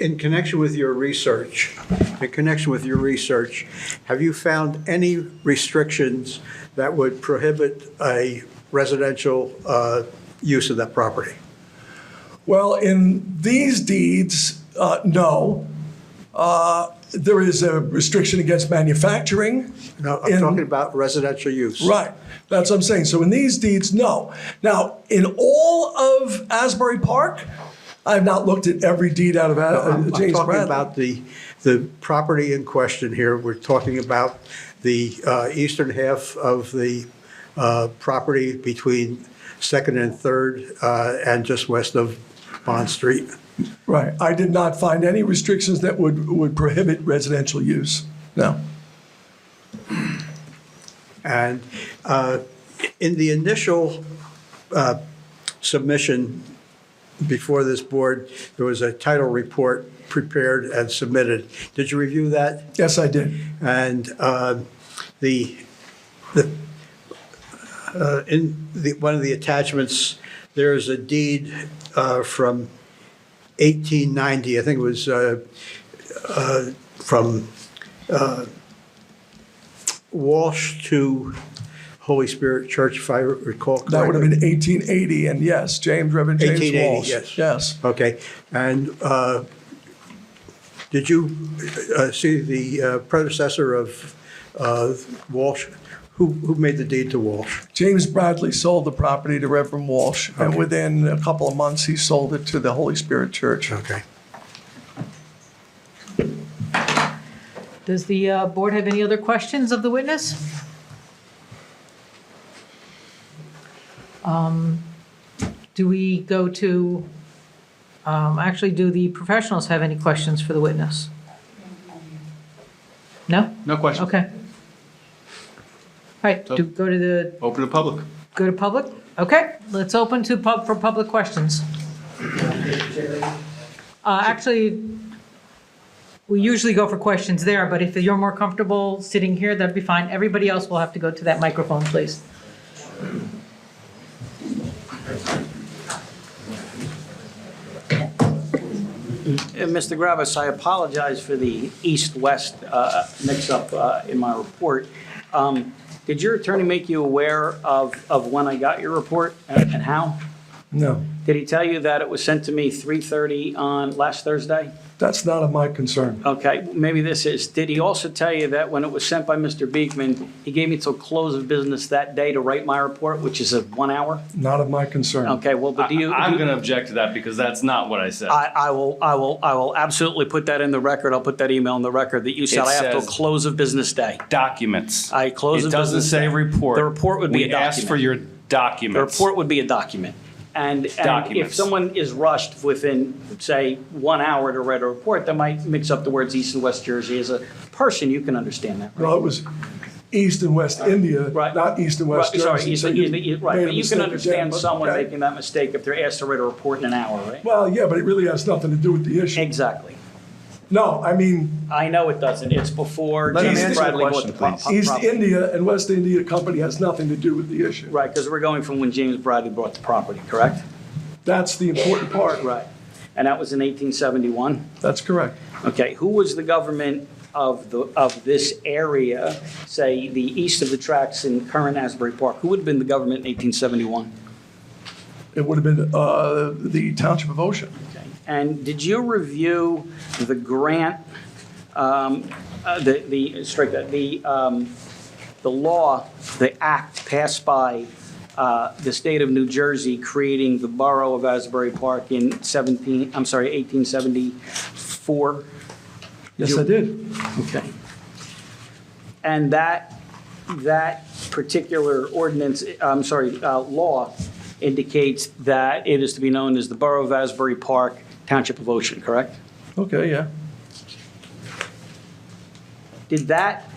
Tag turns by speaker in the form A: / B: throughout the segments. A: in connection with your research, in connection with your research, have you found any restrictions that would prohibit a residential uh, use of that property?
B: Well, in these deeds, uh, no. Uh, There is a restriction against manufacturing.
A: No, I'm
B: in-
A: talking about residential use.
B: Right, that's what I'm saying. So in these deeds, no. Now, in all of Asbury Park, I've not looked at every deed out of
A: I'm
B: A- uh,
A: I'm talking
B: James Bradley.
A: about the, the property in question here. We're talking about the uh, eastern half of the uh, property between Second and Third uh, and just west of Bond Street.
B: Right, I did not find any restrictions that would, would prohibit residential use, no.
A: And uh, in the initial uh, submission before this board, there was a title report prepared and submitted. Did you review that?
B: Yes, I did.
A: And uh, the, the, uh, in the, one of the attachments, there is a deed uh, from 1890, I think it was uh, uh, from uh, Walsh to Holy Spirit Church, if I recall correctly.
B: That would have been 1880, and yes, James, Reverend James
A: 1880,
B: Walsh.
A: yes.
B: Yes,
A: Okay, and uh, did you uh, see the uh, predecessor of uh, Walsh? Who who made the deed to Walsh?
B: James Bradley sold the property to Reverend Walsh, and within a couple of months, he sold it to the Holy Spirit Church.
A: Okay.
C: Does the uh, board have any other questions of the witness? Um, Do we go to, um, actually, do the professionals have any questions for the witness? No?
D: No questions.
C: Okay. All right, do, go to the,
D: Open to public.
C: go to public? Okay, let's open to pub, for public questions. Uh, Actually, we usually go for questions there, but if you're more comfortable sitting here, that'd be fine. Everybody else will have to go to that microphone, please.
E: Uh, Mr. Gravis, I apologize for the east-west uh, mix-up uh, in my report. Um, Did your attorney make you aware of, of when I got your report and and how?
B: No,
E: Did he tell you that it was sent to me 3:30 on last Thursday?
B: that's not of my concern.
E: Okay, maybe this is, did he also tell you that when it was sent by Mr. Beekman, he gave me till close of business that day to write my report, which is a one hour?
B: Not of my concern.
E: Okay, well, but do you?
D: I,
E: do
D: am
E: you-
D: going to object to that because that's not what I said.
E: I, I will, I will, I will absolutely put that in the record. I'll put that email in the record that you said
D: It
E: I have till
D: says-
E: close of business day.
D: documents.
E: I close
D: It
E: the
D: doesn't
E: business
D: say
E: day.
D: report.
E: The report would be
D: we
E: a
D: asked for your
E: document. The
D: documents.
E: report would be a document. And, and if
D: Documents.
E: someone is rushed within, say, one hour to write a report, that might mix up the words East and West Jersey. As a person, you can understand that, right?
B: Well, it was East and West India,
E: Right.
B: not East and West
E: Right,
B: Jersey.
E: Sorry, you-
B: so
E: you- you- right,
B: made a
E: but you
B: mistake
E: can
B: again,
E: understand
B: but-
E: someone
B: okay.
E: making that mistake if they're asked to write a report in an hour, right?
B: Well, yeah, but it really has nothing to do with the issue.
E: Exactly.
B: No, I mean,
E: I know it doesn't. It's before
D: Let him
E: James
D: answer the
E: Bradley bought
D: question,
E: the pro-
D: please.
E: pro-
B: East
E: property.
B: India and West India Company has nothing to do with the issue.
E: Right, because we're going from when James Bradley bought the property, correct?
B: That's the important part.
E: Right. And that was in 1871?
B: That's correct.
E: Okay, who was the government of the, of this area, say, the east of the tracks in current Asbury Park? Who would have been the government in 1871?
B: It would have been uh, the Township of Ocean.
E: Okay. And did you review the grant, um, uh, the, the, strike that, the, um, the law, the act passed by uh, the state of New Jersey creating the borough of Asbury Park in 17, I'm sorry, 1874?
B: Yes, I did.
E: Okay. And that, that particular ordinance, I'm sorry, uh, law indicates that it is to be known as the Borough of Asbury Park, Township of Ocean, correct?
B: Okay, yeah.
E: Did that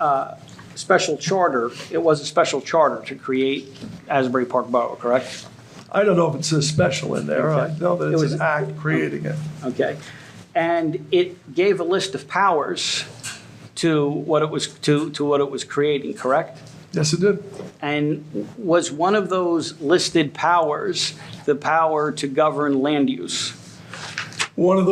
E: uh, special charter, it was a special charter to create Asbury Park Borough, correct?
B: I don't know if it says special in there. I know that
E: It
B: it's
E: was-
B: an act creating it.
E: Okay. And it gave a list of powers to what it was, to, to what it was creating, correct?
B: Yes, it did.
E: And was one of those listed powers the power to govern land use?
B: One of